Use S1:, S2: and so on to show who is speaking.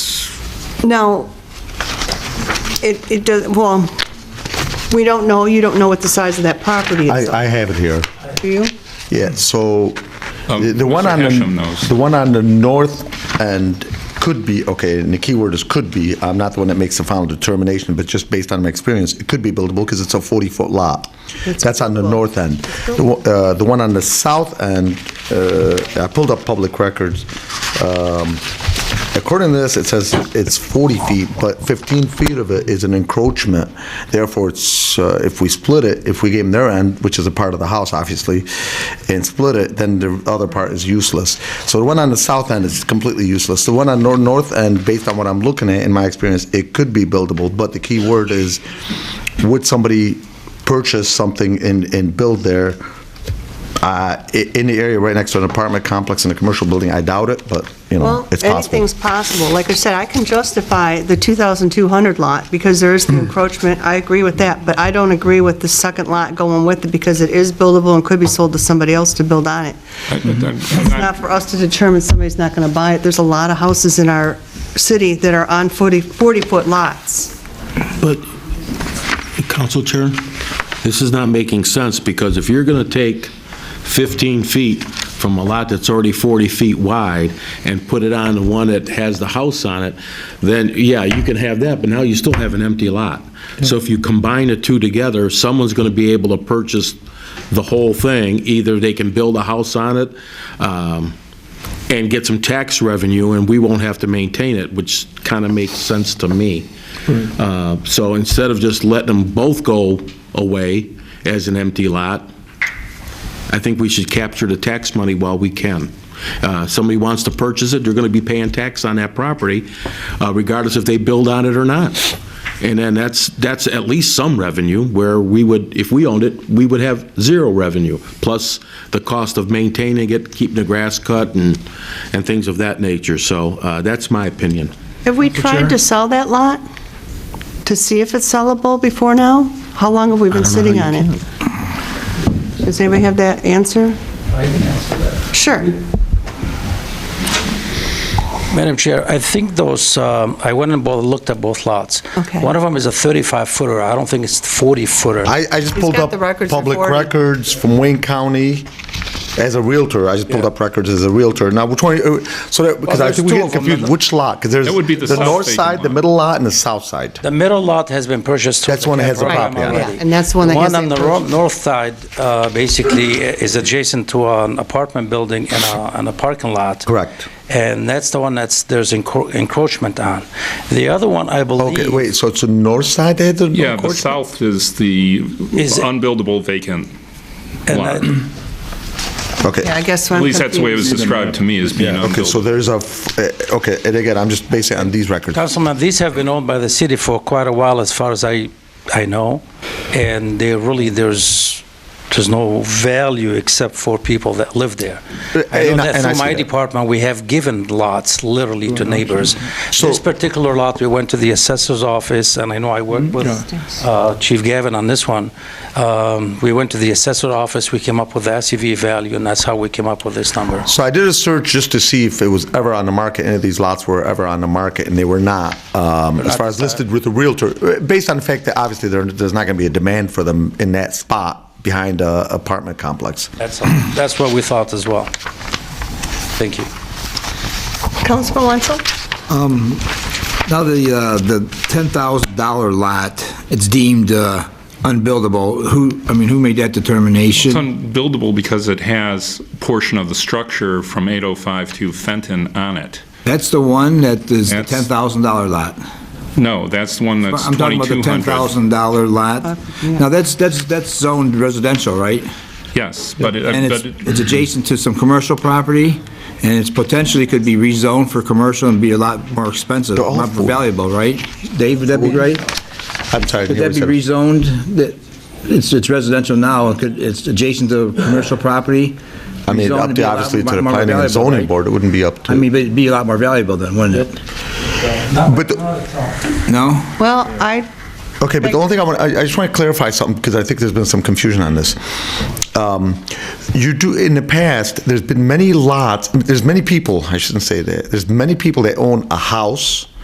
S1: Now, it, it does, well, we don't know, you don't know what the size of that property is,
S2: I, I have it here.
S1: do you?
S2: Yeah, so the
S3: Um,
S2: the one
S3: Mr.
S2: on
S3: Hashem knows.
S2: the, the one on the north end could be, okay, and the key word is could be, I'm not the one that makes the final determination, but just based on my experience, it could be buildable because it's a 40-foot lot. That's on the north end. The one- uh, the one on the south end, uh, I pulled up public records. Um, According to this, it says it's 40 feet, but 15 feet of it is an encroachment. Therefore, it's, uh, if we split it, if we gave them their end, which is a part of the house, obviously, and split it, then the other part is useless. So the one on the south end is completely useless. The one on nor- north end, based on what I'm looking at, in my experience, it could be buildable, but the key word is, would somebody purchase something and, and build there uh, i- in the area right next to an apartment complex and a commercial building? I doubt it, but, you know,
S1: Well,
S2: it's possible.
S1: anything's possible. Like I said, I can justify the 2,200 lot because there
S2: Hmm.
S1: is the encroachment. I agree with that, but I don't agree with the second lot going with it because it is buildable and could be sold to somebody else to build on it.
S3: I- I- I'm-
S1: It's not for us to determine somebody's not going to buy it. There's a lot of houses in our city that are on 40 40-foot lots.
S4: But, Council Chair, this is not making sense, because if you're going to take 15 feet from a lot that's already 40 feet wide and put it on the one that has the house on it, then, yeah, you can have that, but now you still have an empty lot. So if you combine the two together, someone's going to be able to purchase the whole thing. Either they can build a house on it, um, and get some tax revenue, and we won't have to maintain it, which kind of makes sense to me. Uh, So instead of just letting them both go away as an empty lot, I think we should capture the tax money while we can. Uh, Somebody wants to purchase it, they're going to be paying tax on that property, uh, regardless if they build on it or not. And then that's, that's at least some revenue, where we would, if we owned it, we would have zero revenue, plus the cost of maintaining it, keeping the grass cut and, and things of that nature. So uh, that's my opinion.
S1: Have we tried to sell that lot to see if it's sellable before now? How long have we been sitting on it? Does anybody have that answer?
S5: I can answer that.
S1: Sure.
S5: Madam Chair, I think those, um, I went and both, looked at both lots.
S1: Okay.
S5: One of them is a 35-footer, I don't think it's 40-footer.
S2: I, I just
S1: He's
S2: pulled
S1: got
S2: up
S1: the records
S2: public
S1: recorded.
S2: records from Wayne County as a realtor. I just pulled up records as a realtor. Now, which one, uh, so that, because I
S5: there's
S2: think we
S5: two
S2: get
S5: of 'em,
S2: confused,
S5: isn't
S2: which lot? Because there's
S3: That would be the
S2: the
S3: south
S2: north
S3: facing
S2: side, the
S3: lot.
S2: middle lot, and the south side.
S5: The middle lot has been purchased. through
S2: That's one that has the
S5: program
S2: property on it.
S5: already.
S1: Yeah, and that's the one that has
S5: on
S1: the
S5: the ro- north side, uh, basically, i- is adjacent to an apartment building and a, and a parking lot.
S2: Correct.
S5: And that's the one that's, there's encro- encroachment on. The other one, I
S2: Okay,
S5: believe,
S2: wait, so it's the north side that had the
S3: Yeah, the
S2: encroachment?
S3: south is the
S5: Is-
S3: unbuildable vacant
S5: And
S3: lot.
S5: I-
S1: Yeah,
S2: Okay,
S1: I guess
S3: At
S1: I'm
S3: least that's the way it was
S1: confused.
S3: described to me, as being
S2: okay, so
S3: unbuildable.
S2: there's a, f- uh, okay, and again, I'm just basing it on these records.
S5: Councilman, these have been owned by the city for quite a while, as far as I, I know, and they really, there's, there's no value except for people that live there. I know
S2: Uh, And I-
S5: that
S2: and I
S5: through
S2: see
S5: my
S2: that. Mm-hmm.
S5: department, we have given lots literally to neighbors. This particular lot, we went to the assessor's office, and I know I
S2: Mm-hmm.
S5: worked with uh, Chief Gavin on this one. Um, We went to the assessor's office, we came up with the SEV value, and that's how we came up with this number.
S2: So I did a search just to see if it was ever on the market, any of these lots were ever on the market, and they were not, um, as far as listed with the Realtor, uh, based on the fact that obviously there- there's not going to be a demand for them in that spot behind a apartment complex.
S5: That's, that's what we thought as well. Thank you.
S1: Councilman Wenzel?
S6: Now, the, uh, the $10,000 lot, it's deemed uh, unbuildable. Who, I mean, who made that
S3: It's
S6: determination?
S3: unbuildable because it has portion of the structure from 805 to Fenton on it.
S6: That's the one that is the
S3: That's-
S6: $10,000 lot.
S3: No, that's the one that's
S6: I'm talking about the
S3: 2200.
S6: $10,000 lot. Now, that's, that's, that's zoned residential, right?
S3: Yes, but it, uh,
S6: And
S3: but
S6: it's,
S3: it-
S6: it's adjacent to some commercial property, and it's potentially could be rezoned for commercial and be a lot more expensive,
S2: They're all
S6: more
S2: full.
S6: valuable, right? Dave, would that be right?
S2: I'm sorry. I didn't hear
S6: Could that be
S2: what you said.
S6: rezoned? That, it's, it's residential now, it could- it's adjacent to commercial property?
S2: I mean,
S6: Rezoned,
S2: up
S6: it'd be
S2: to,
S6: a lot
S2: obviously, to
S6: more-
S2: the
S6: more
S2: planning and
S6: valuable,
S2: zoning
S6: right?
S2: board, it wouldn't be up to.
S6: I mean, but it'd be a lot more valuable then, wouldn't it?
S2: But, the-
S6: uh, No?
S1: Well, I,
S2: okay, but the only thing I want, I I just want to clarify something, because I think there's been some confusion on this. Um, You do, in the past, there's been many lots, there's many people, I shouldn't say that, there's many people that own a house,